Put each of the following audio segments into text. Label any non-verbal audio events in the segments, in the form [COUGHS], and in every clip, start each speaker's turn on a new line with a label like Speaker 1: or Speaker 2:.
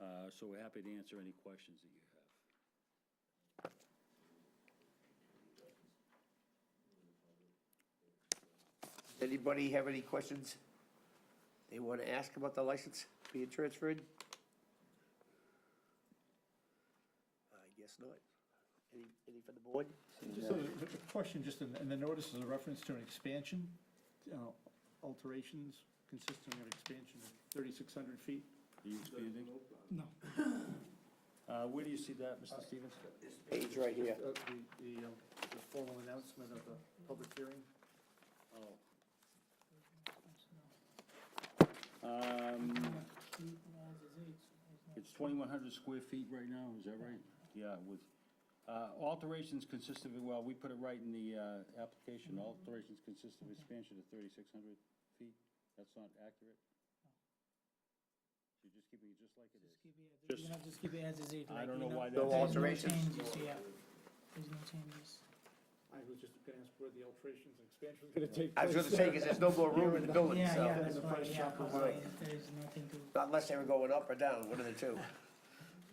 Speaker 1: Uh, So we're happy to answer any questions that you have.
Speaker 2: Anybody have any questions they want to ask about the license being transferred? I guess not. Any, any from the board?
Speaker 3: Just a a question, just in, in the notice is a reference to an expansion, you know, alterations consisting of expansion of thirty-six hundred feet.
Speaker 1: Are you expanding?
Speaker 3: No.
Speaker 1: [COUGHS] Uh, Where do you see that, Mr. Stevens?
Speaker 2: Page right here.
Speaker 3: The, the, um, the formal announcement of the public hearing. Uh,
Speaker 1: Oh. Um, It's 2,100 square feet right now, is that right? Yeah, with, uh, alterations consist of, well, we put it right in the uh, application, alterations consist of expansion of 3,600 feet. That's not accurate? You're just keeping it just like it is?
Speaker 4: Just keep it, as- you know, just keep it as is. like,
Speaker 1: I don't
Speaker 4: you
Speaker 1: know why
Speaker 2: No
Speaker 1: that,
Speaker 4: There's no
Speaker 2: alterations.
Speaker 4: changes, yeah. There's no changes.
Speaker 3: I was just gonna ask where the alterations and expansion was gonna take
Speaker 2: I was
Speaker 3: place.
Speaker 2: gonna say, because there's no more room in the building,
Speaker 4: Yeah, yeah,
Speaker 2: so,
Speaker 4: that's
Speaker 3: the
Speaker 4: why,
Speaker 3: price
Speaker 4: yeah,
Speaker 3: shop
Speaker 4: that's
Speaker 2: away.
Speaker 4: why there's nothing to,
Speaker 2: unless they were going up or down, one of the two.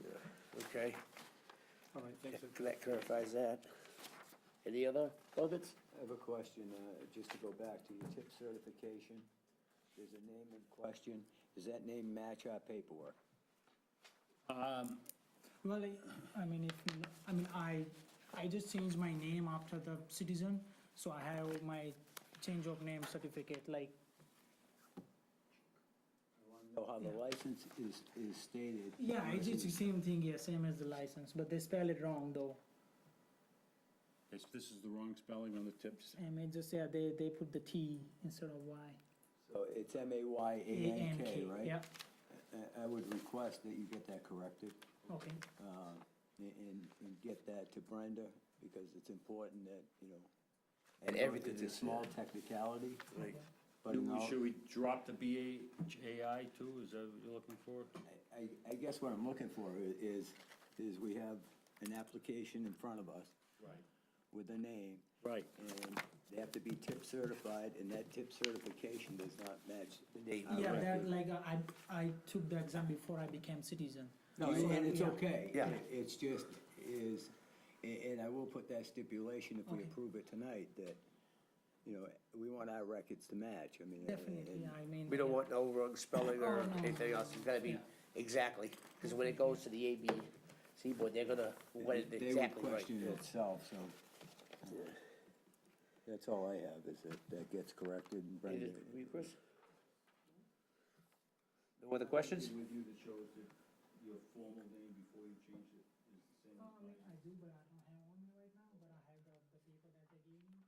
Speaker 2: Yeah, Okay,
Speaker 3: All right, thanks.
Speaker 2: that that clarifies that. Any other comments?
Speaker 5: I have a question, uh, just to go back to your tip certification. There's a name in question. Does that name match our paperwork?
Speaker 4: well, I- I mean, if, I mean, I, I just changed my name after the citizen, so I have my change of name certificate, like,
Speaker 5: Know how the license is, is stated.
Speaker 4: yeah, it's it's the same thing, yeah, same as the license, but they spell it wrong though.
Speaker 1: It's- this is the wrong spelling on the tips.
Speaker 4: And it just, yeah, they, they put the T instead of Y.
Speaker 5: So it's M-A-Y-A-N-K, right?
Speaker 4: Yeah,
Speaker 5: I- I would request that you get that corrected
Speaker 4: okay,
Speaker 5: uh, and, and get that to Brenda because it's important that, you know. I
Speaker 2: And
Speaker 5: know
Speaker 2: everything
Speaker 5: It's a
Speaker 2: is-
Speaker 5: small technicality.
Speaker 2: Right.
Speaker 5: But in
Speaker 1: Do we-
Speaker 5: all-
Speaker 1: Should we drop the BHAI too? Is that what you're looking for?
Speaker 5: I, I guess what I'm looking for i- is, is we have an application in front of us
Speaker 1: Right.
Speaker 5: with a name.
Speaker 1: Right.
Speaker 5: And they have to be tip certified, and that tip certification does not match the name.
Speaker 4: yeah, that, like, I, I took the exam before I became citizen.
Speaker 5: No, and and it's
Speaker 4: Yeah.
Speaker 5: okay.
Speaker 2: Yeah.
Speaker 5: It's just, is, a- and I will put that stipulation if we
Speaker 4: Okay.
Speaker 5: approve it tonight, that, you know, we want our records to match, I mean.
Speaker 4: Definitely,
Speaker 5: and-
Speaker 4: I mean.
Speaker 2: We don't
Speaker 4: yeah.
Speaker 2: want no wrong spelling or
Speaker 4: Oh, no.
Speaker 2: anything else, it's gotta be
Speaker 4: Yeah.
Speaker 2: exactly, because when it goes to the ABC board, they're gonna, what it
Speaker 5: They would
Speaker 2: exactly right.
Speaker 5: question it itself, so. That's all I have, is that, that gets corrected and
Speaker 2: Any
Speaker 5: Brenda.
Speaker 2: other- Chris? No other questions?
Speaker 1: With you that shows that your formal name before you change it is the same.
Speaker 4: Oh, I mean, I do, but I don't have on me right now, but I have the, the paper that they gave me.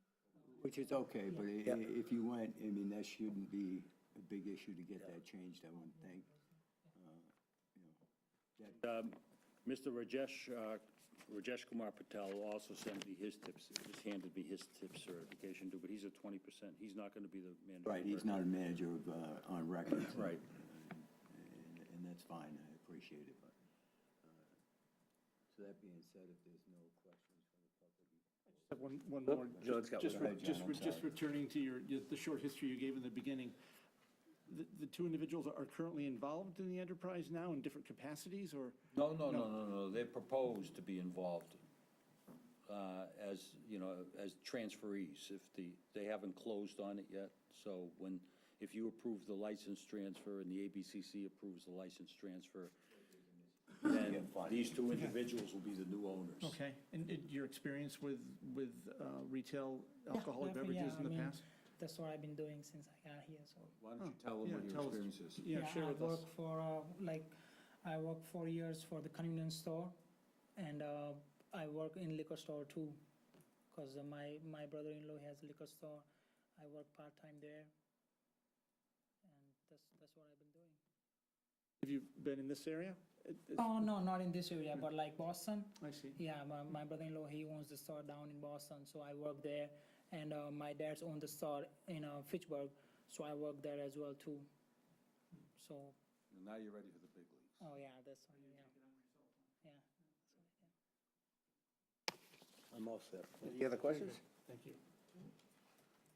Speaker 5: Which is okay, but i-
Speaker 2: Yeah.
Speaker 5: i- if you went, I mean, that shouldn't be a big issue to get that changed, I wouldn't think.
Speaker 1: Mr. Um, Rajesh, uh, Rajesh Kumar Patel will also sent me his tips, just handed me his tip certification too, but he's at twenty percent. He's not gonna be the manager.
Speaker 5: Right, he's not a manager of, uh, on
Speaker 3: [CLEARS THROAT]
Speaker 5: records.
Speaker 1: Right.
Speaker 5: And, and that's fine, I appreciate it, but, uh, so that being said, if there's no questions from the public.
Speaker 3: Have One, one more. just-
Speaker 2: John's got
Speaker 3: Just,
Speaker 2: one.
Speaker 3: re-
Speaker 5: Right, Oh. John,
Speaker 3: just,
Speaker 5: I'm
Speaker 3: re- just
Speaker 5: sorry.
Speaker 3: returning to your, your- the short history you gave in the beginning. The, the two individuals are currently involved in the enterprise now in different capacities, or?
Speaker 1: No, no, no, no, no, they proposed to be involved uh, as, you know, as transferees, if the, they haven't closed on it yet, so when, if you approve the license transfer and the ABCC approves the license transfer, then these two individuals will be the new owners.
Speaker 3: Okay, and it- your experience with, with uh, retail alcoholic
Speaker 4: Definitely, yeah,
Speaker 3: beverages in
Speaker 4: I
Speaker 3: the
Speaker 4: mean,
Speaker 3: past?
Speaker 4: That's what I've been doing since I got here, so.
Speaker 5: Why don't you tell
Speaker 3: Yeah,
Speaker 5: them what your
Speaker 3: tell us-
Speaker 5: experience is?
Speaker 3: Yeah, share
Speaker 4: I
Speaker 3: with us.
Speaker 4: worked for, uh, like, I worked four years for the convenience store, and uh, I work in liquor store too, because my, my brother-in-law has a liquor store. I work part-time there, and that's, that's what I've been doing.
Speaker 3: Have you been in this area? It- it's-
Speaker 4: Oh, no, not in this area, but like Boston,
Speaker 3: I see.
Speaker 4: Yeah, my, my brother-in-law, he owns the store down in Boston, so I work there. And uh, my dad's owned the store in uh, Fitchburg, so I work there as well too. So,
Speaker 1: Now you're ready for the big leagues.
Speaker 4: oh yeah, that's, yeah. Yeah.
Speaker 5: I'm all set.
Speaker 2: Any other questions?
Speaker 3: Thank you.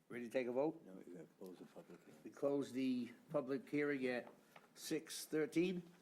Speaker 2: Ready to take a vote?
Speaker 5: No, you gotta close the public hearing.
Speaker 2: We close the public hearing at six thirteen.